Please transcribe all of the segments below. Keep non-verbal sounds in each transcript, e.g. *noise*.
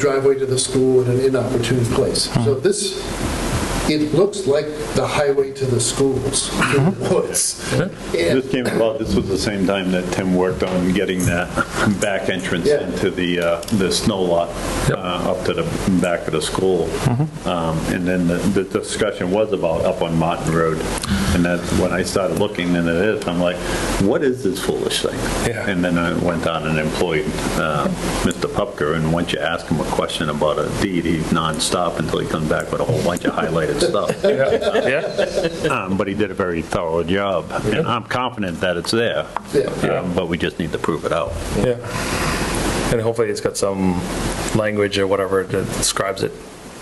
driveway to the school in an inopportune place. So this, it looks like the highway to the schools, through the woods. And This came about, this was the same time that Tim worked on getting that back entrance Yeah. into the, uh, the snow lot uh, up to the back of the school. Um, And then the the discussion was about up on Martin Road. And that's when I started looking into this, I'm like, what is this foolish thing? Yeah. And then I went on and employed uh, Mr. Pupker, and once you ask him a question about a deed, he's nonstop until he comes back with a whole bunch of highlighted stuff. Yeah, Um, But he did a very thorough job, and I'm confident that it's there. Yeah. Um, But we just need to prove it out. yeah. And hopefully it's got some language or whatever that describes it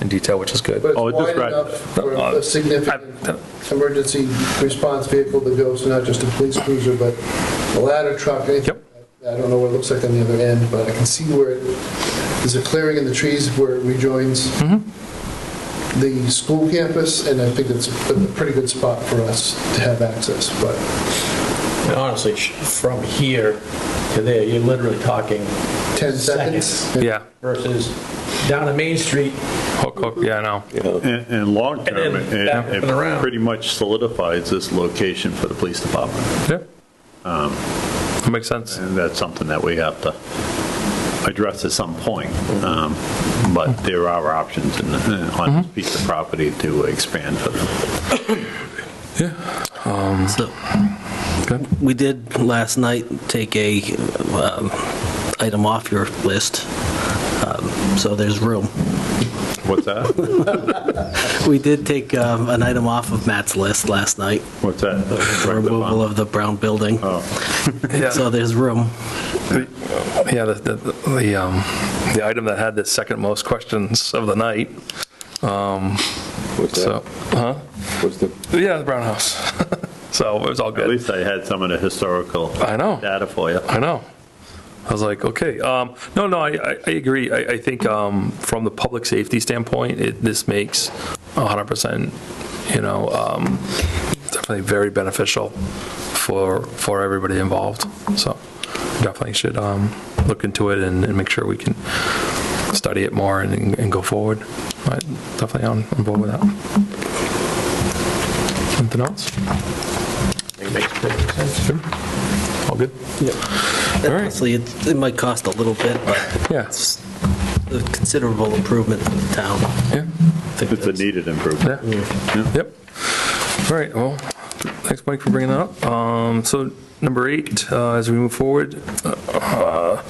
in detail, which is But good. Oh, it's it wide described- enough for a significant emergency response vehicle that goes, not just a police cruiser, but a ladder truck. anything. Yep. I don't know what it looks like on the other end, but I can see where it, there's a clearing in the trees where it rejoins the school campus, and I think it's a pretty good spot for us to have access, but. And Honestly, sh- from here to there, you're literally talking 10 Seconds. seconds. Yeah, versus down to Main Street, hook, hook, yeah, I know. And and long And term, then back it- up and it around. pretty much solidifies this location for the police department. Yeah. Um, That makes sense. And that's something that we have to address at some point. Um, But there are options in the- on this piece of property to expand for them. So, Good. we did last night take a um, item off your list, um, so there's room. What's that? We did take um, an item off of Matt's list last night, What's that? the removal of the brown building, Yeah, so there's room. yeah, the, the, the, um, the item that had the second most questions of the night, um, What's so, that? huh? What's the, Yeah, the brown house. *laughs* So it was all At good. least I had some of the historical I know. data for you. I know. I was like, okay, um, no, no, I, I- I agree. I, I think, um, from the public safety standpoint, it, this makes hundred percent, you know, um, definitely very beneficial for, for everybody involved. So definitely should, um, look into it and, and make sure we can study it more and, and go forward. But definitely on, on board with that. Something else? All good? right. Honestly, it it might cost a little bit, but Yeah, it's a considerable improvement to the town. yeah. I think It's a that's- needed improvement. Yeah. Yep. All right, well, thanks, Mike, for bringing that up. Um, So number eight, uh, as we move forward, uh,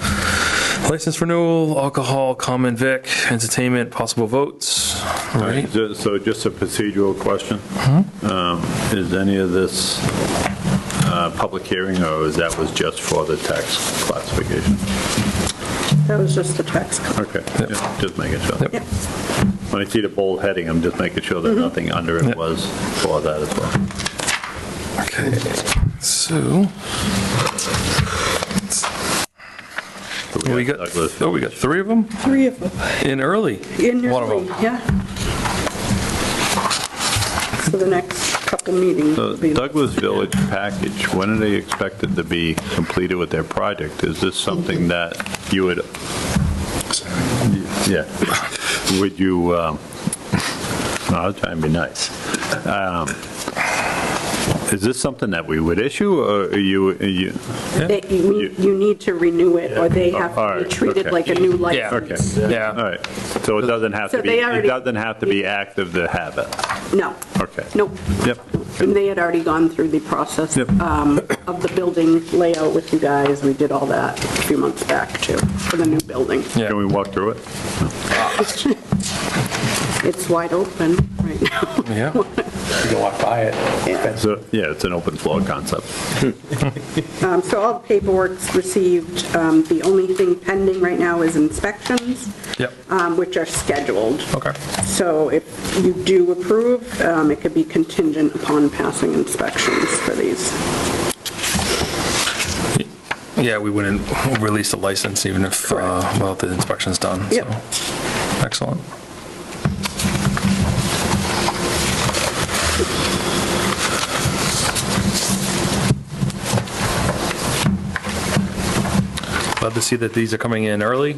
license renewal, alcohol, common vic, entertainment, possible votes. All right, Ju- So just a procedural question. Mm-hmm. Um, Is any of this uh, public hearing, or is that was just for the tax classification? That was just the tax cut. Okay, yeah, just making sure. Yep. Mm-hmm. Yep. When I see the bold heading, I'm just making sure that nothing under it Yep. was for that as well. okay, so. So We have got, Douglas. oh, we got three of them Three of them. in early. In your One of three, them. yeah. So the next couple meetings So will be. Douglas Village package, when are they expected to be completed with their project? Is this something that you would, yeah, would you, um, no, I'll try and be nice. Um, Is this something that we would issue, or are you, are you, They- You need, you need to renew it, or they have All to be right, treated okay. like a new Yeah. okay. license. All Yeah, right, so it doesn't have So to be, they it already- doesn't have to be active to have it? No. Okay. Nope. Yep. And they had already gone through the process Yep. um, of the building layout with you guys. We did all that a few months back, too, for the new building. *laughs* yeah. Can we walk through it? It's wide open right now. Yeah. you can walk by it. So, yeah, it's an open floor concept. Um, So all the paperwork's received. Um, The only thing pending right now is inspections, Yep, um, which are scheduled. okay. So if you do approve, um, it could be contingent upon passing inspections for these. Yeah, we wouldn't release the license even if, uh, well, the inspection's done, so. Yep. Excellent. Glad to see that these are coming in early.